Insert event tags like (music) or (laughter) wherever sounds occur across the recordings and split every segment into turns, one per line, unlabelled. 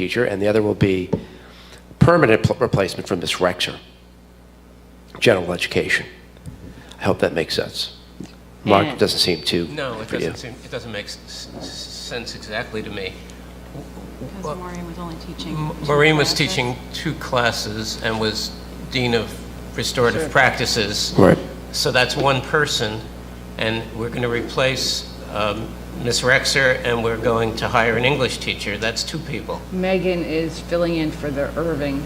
future, and the other will be permanent pl- replacement for Miss Rexer, general education. I hope that makes sense. Mark, it doesn't seem too.
No, it
for you.
doesn't seem, it doesn't make s- s- sense exactly to me.
Because Maureen was only teaching.
M-
two
Maureen was
classes.
teaching two classes and was Dean of Restorative Practices.
Right.
So that's one person, and we're going to replace um, Ms. Rexer, and we're going to hire an English teacher. That's two people.
Megan is filling in for the Irving,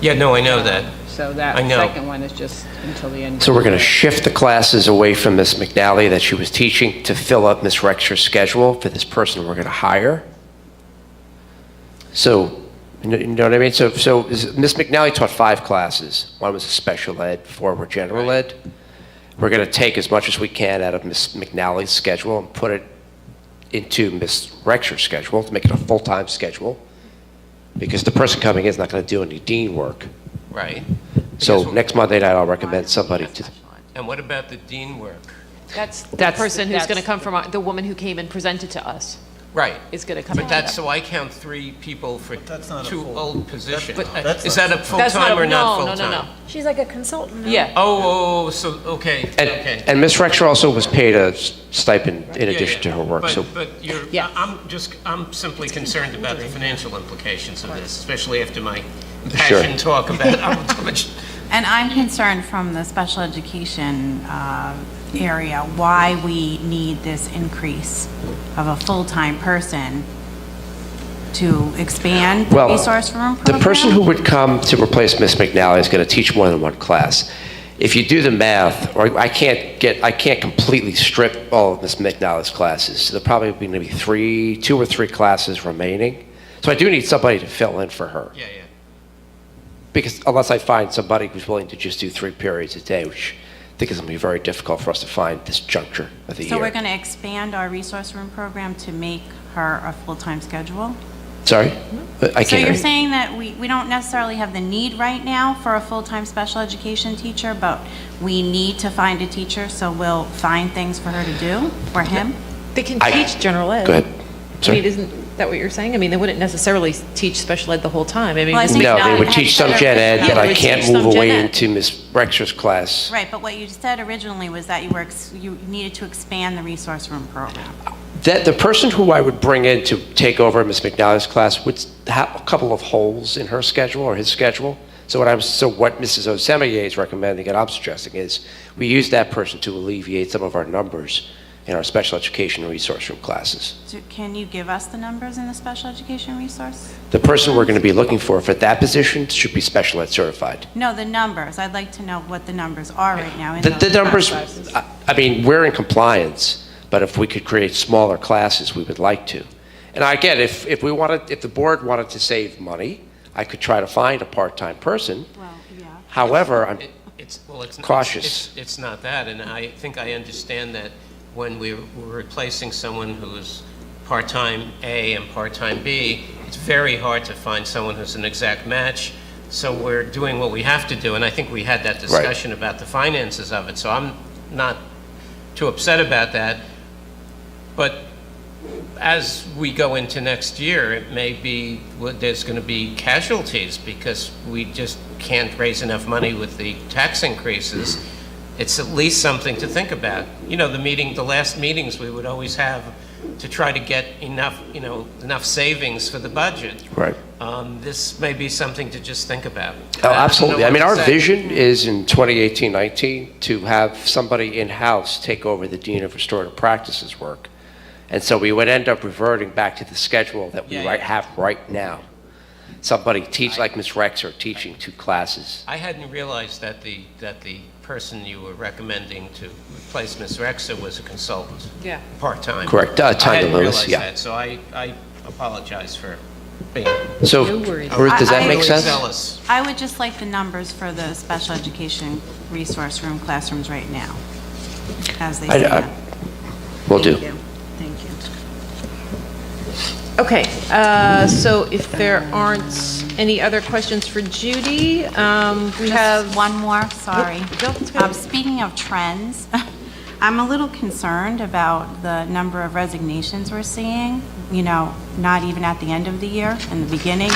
Yeah, no, I know that.
so that
I know.
second one is just until the end.
So we're going to shift the classes away from Miss McNally that she was teaching to fill up Miss Rexer's schedule for this person we're going to hire. So, you know- you know what I mean? So, so is- Miss McNally taught five classes. One was a special ed, four were general ed. We're going to take as much as we can out of Miss McNally's schedule and put it into Miss Rexer's schedule to make it a full-time schedule, because the person coming in is not going to do any dean work.
Right.
So
Because-
next Monday night, I'll recommend somebody to,
And what about the dean work?
That's the
That's-
person who's going to
that's-
come from, our- the woman who came and presented to us
Right.
is going to come.
But
from
that's,
that.
so I count three people for
that's not a
two
full-
old positions.
But- that's
Is
not-
that a
That's
full-time
a-
or not
no,
full-time?
No, no, no,
She's like a consultant.
yeah.
Oh, oh, so, okay,
And,
okay.
and Ms. Rexroth also was paid a s- stipend in
Yeah,
addition to
yeah.
her work,
But-
so.
But you're,
Yeah.
I- I'm just, I'm simply concerned about the financial implications of this, especially after my passion talk about how much
And I'm concerned from the special education uh, area, why we need this increase of a full-time person to expand the
Well,
resource room
The
program?
person who would come to replace Miss McNally is going to teach more than one class. If you do the math, or I can't get, I can't completely strip all of Miss McNally's classes. So There'll probably be maybe three, two or three classes remaining. So I do need somebody to fill in for her.
Yeah, yeah.
Because unless I find somebody who's willing to just do three periods a day, which I think is going to be very difficult for us to find this juncture of the year.
So we're going to expand our resource room program to make her a full-time schedule?
Sorry? I can't
So
hear
you're
you.
saying that we, we don't necessarily have the need right now for a full-time special education teacher, but we need to find a teacher, so we'll find things for her to do, for him?
They can
I-
teach general ed.
Go ahead.
I mean,
Sorry.
isn't that what you're saying? I mean, they wouldn't necessarily teach special ed the whole time. I mean,
Well, I think
No,
now
they
it
would
has
teach some
better-
gen ed,
Yeah,
but
they
I
would
can't
teach some
move
gen
away
ed.
into Miss Rexer's class.
Right, but what you said originally was that you were, ex- you needed to expand the resource room program.
That, the person who I would bring in to take over Miss McNally's class would have a couple of holes in her schedule or his schedule. So what I'm, so what Mrs. Osemeye is recommending and I'm suggesting is we use that person to alleviate some of our numbers in our special education resource room classes.
So Can you give us the numbers in the special education resource?
The person we're going to be looking for for that position should be special ed certified.
No, the numbers. I'd like to know what the numbers are right now. in
The,
those
the numbers,
classes.
I I mean, we're in compliance, but if we could create smaller classes, we would like to. And I get, if, if we wanted, if the board wanted to save money, I could try to find a part-time person.
Well, yeah.
However, I'm,
It- It's, well, it's. it's-
Cautious.
it's- It's not that, and I think I understand that when we're we're replacing someone who's part-time A and part-time B, it's very hard to find someone who's an exact match, so we're doing what we have to do, and I think we had that discussion about the finances of it, so I'm not too upset about that. But as we go into next year, it may be, well, there's going to be casualties because we just can't raise enough money with the tax increases. It's at least something to think about. You know, the meeting, the last meetings we would always have to try to get enough, you know, enough savings for the budget.
right.
Um, This may be something to just think about.
Oh,
I don't know
absolutely. I
what
mean,
to
our
say.
vision is in 2018, 19, to have somebody in-house take over the Dean of Restorative Practices work. And so we would end up reverting back to the schedule that we
Yeah,
right,
yeah.
have right now. Somebody teach, like Ms. Rexer, teaching two classes.
I hadn't realized that the, that the person you were recommending to replace Ms. Rexer was a consultant.
Yeah.
Part-time.
Correct, uh, Tanya Lewis, yeah.
I hadn't realized that, so I, I apologize for being
So,
No worries.
Ruth, does that
I-
make
overly
sense?
zealous.
I would just like the numbers for the special education resource room classrooms right now, as they
I- I-
stand.
Will do.
Thank you. Thank you.
Okay, uh, so if there aren't any other questions for Judy, um, we
Just
have.
one more, sorry.
Nope, that's good.
Um, Speaking of trends, (laughs) I'm a little concerned about the number of resignations we're seeing, you know, not even at the end of the year, in the beginning,